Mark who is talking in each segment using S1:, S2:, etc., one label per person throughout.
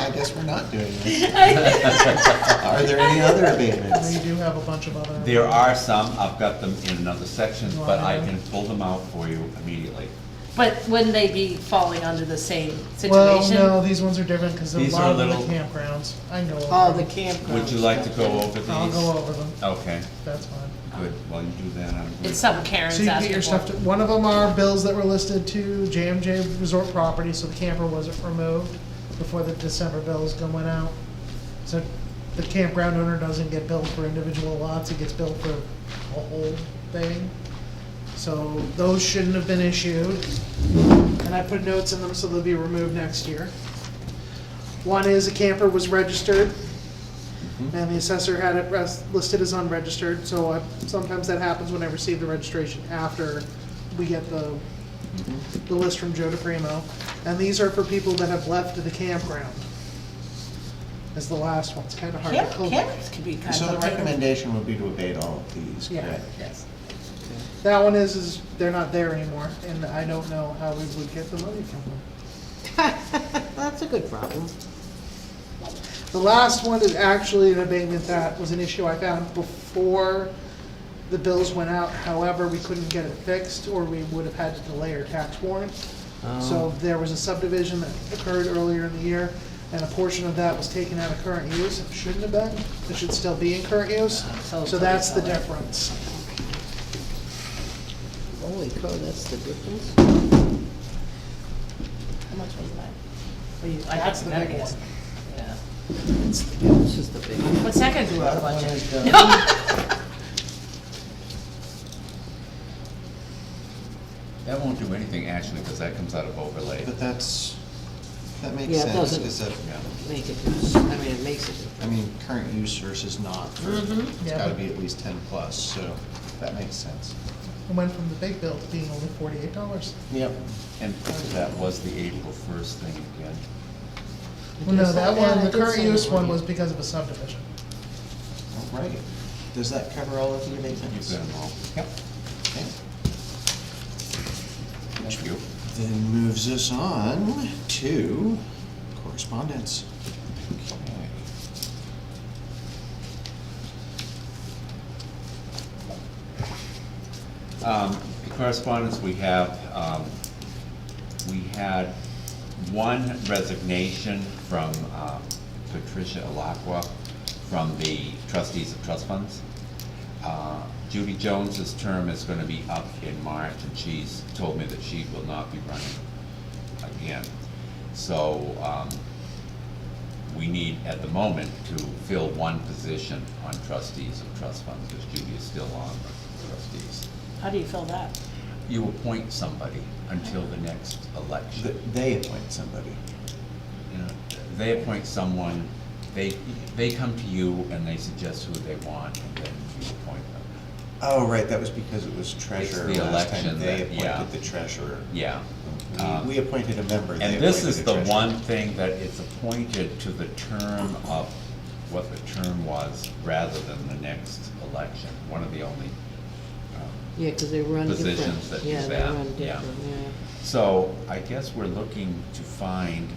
S1: I guess we're not doing that.
S2: Yes.
S1: Are there any other abatements?
S3: We do have a bunch of other.
S4: There are some, I've got them in another section, but I can pull them out for you immediately.
S2: But wouldn't they be falling under the same situation?
S3: Well, no, these ones are different because a
S4: These
S3: lot
S4: are
S3: of them are
S4: little-
S3: campgrounds. I can go over.
S5: Oh, the
S3: them.
S5: campground.
S4: Would you like to go over
S3: I'll go
S4: these?
S3: over them.
S4: Okay,
S3: That's fine.
S4: good, while you do that, I'm
S2: It's
S4: going
S2: some
S3: So
S2: Karen's
S3: you can get
S2: asking
S3: your stuff,
S2: for.
S3: to- one of them are bills that were listed to JMJ Resort Property, so the camper wasn't removed before the December bills go- went out. So the campground owner doesn't get billed for individual lots, it gets billed for a whole thing. So those shouldn't have been issued, and I put notes in them so they'll be removed next year. One is a camper was registered, and the assessor had it res- listed as unregistered, so I- sometimes that happens when I receive the registration after we get the, the list from Joe DePrimo. And these are for people that have left the campground. Is the last one, it's kind of hard to
S5: Camp,
S3: pull.
S5: camps could be kind
S1: So the
S5: of.
S1: recommendation would be to abate all of these,
S3: Yeah.
S1: correct?
S5: Yes.
S3: That one is, is they're not there anymore, and I don't know how we would get the money from them.
S5: That's a good problem.
S3: The last one is actually an abatement that was an issue I found before the bills went out. However, we couldn't get it fixed, or we would have had to delay our tax warrant.
S5: Oh.
S3: So there was a subdivision that occurred earlier in the year, and a portion of that was taken out of current use. It Shouldn't have been, it should still be in current use.
S5: So
S3: So that's the
S5: it's all right.
S3: difference.
S5: Holy cow, that's the difference. How much was that? Well, you- I
S3: That's
S5: think
S3: the
S5: that
S3: big
S5: is-
S3: one.
S5: Yeah. This is the big one.
S2: What's that gonna do to our
S1: That one
S2: budget?
S1: is done.
S4: That won't do anything actually, because that comes out of overlay.
S1: But that's, that makes
S5: Yeah, it
S1: sense,
S5: doesn't-
S1: because
S5: Make it, I mean, it makes it.
S1: I mean, current use versus not, for- it's
S3: Yeah.
S1: gotta be at least ten plus, so that makes sense.
S3: It went from the big bill to being only forty-eight dollars.
S1: Yep.
S4: And that was the April first thing again.
S3: Well, no,
S5: Yes,
S3: that
S5: yeah,
S3: one,
S5: I
S3: the
S5: did
S3: current
S5: say
S3: use one
S5: 48.
S3: was because of a subdivision.
S1: All right. Does that cover all of the
S4: You've
S1: abatements?
S4: got them all. Yep.
S1: Okay.
S4: Thank you.
S1: Then moves us on to correspondence.
S4: Um, the Correspondence we have, um, we had one resignation from um, Patricia Alacqua from the trustees of trust funds. Uh, Judy Jones's term is gonna be up in March, and she's told me that she will not be running again. So, um, we need at the moment to fill one position on trustees of trust funds, because Judy is still on the trustees.
S2: How do you fill that?
S4: You appoint somebody until the next
S1: Th-
S4: election.
S1: They appoint somebody.
S4: You know, They appoint someone, they, they come to you and they suggest who they want, and then you appoint them.
S1: Oh, right, that was because it was treasurer
S4: the
S1: last time.
S4: election
S1: They
S4: that- yeah.
S1: appointed the treasurer.
S4: Yeah.
S1: We-
S4: Um,
S1: We appointed a member. they
S4: And this
S1: appointed
S4: is
S1: a
S4: the
S1: treasurer.
S4: one thing that it's appointed to the term of what the term was, rather than the next election, one of the only um,
S5: Yeah, because they run different.
S4: Positions that do
S5: Yeah, they
S4: that,
S5: run
S4: yeah.
S5: different, yeah.
S4: So I guess we're looking to find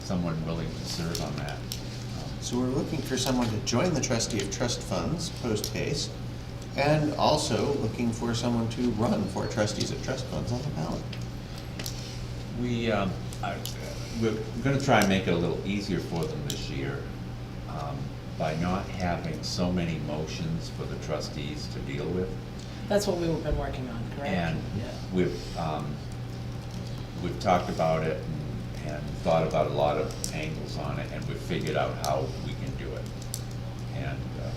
S4: someone willing to serve on that. Um,
S1: So we're looking for someone to join the trustee of trust funds post haste, and also looking for someone to run for trustees of trust funds on the ballot.
S4: We, um, I- we're gonna try and make it a little easier for them this year um, by not having so many motions for the trustees to deal with.
S2: That's what we've been working on, correct?
S4: And
S5: Yeah.
S4: we've, um, we've talked about it and- and thought about a lot of angles on it, and we've figured out how we can do it. And, uh,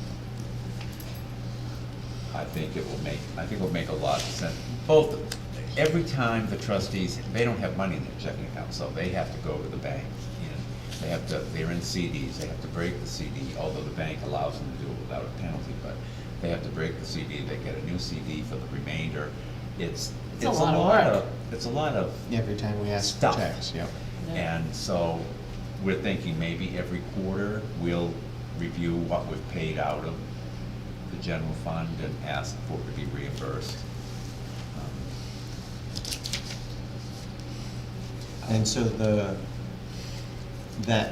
S4: I think it will make, I think it'll make a lot of sense. Both, every time the trustees, they don't have money in their checking account, so they have to go to the bank. and They have to, they're in CDs, they have to break the CD, although the bank allows them to do it without a penalty, but they have to break the CD, they get a new CD for the remainder. It's,
S2: It's
S4: it's
S2: a
S4: a
S2: lot of
S4: lot
S2: work.
S4: of, it's a lot of
S1: Every time we ask for
S4: Stuff.
S1: tax, yep.
S2: Yeah.
S4: and so we're thinking maybe every quarter, we'll review what we've paid out of the general fund and ask for it to be reimbursed. Um,
S1: And so the, that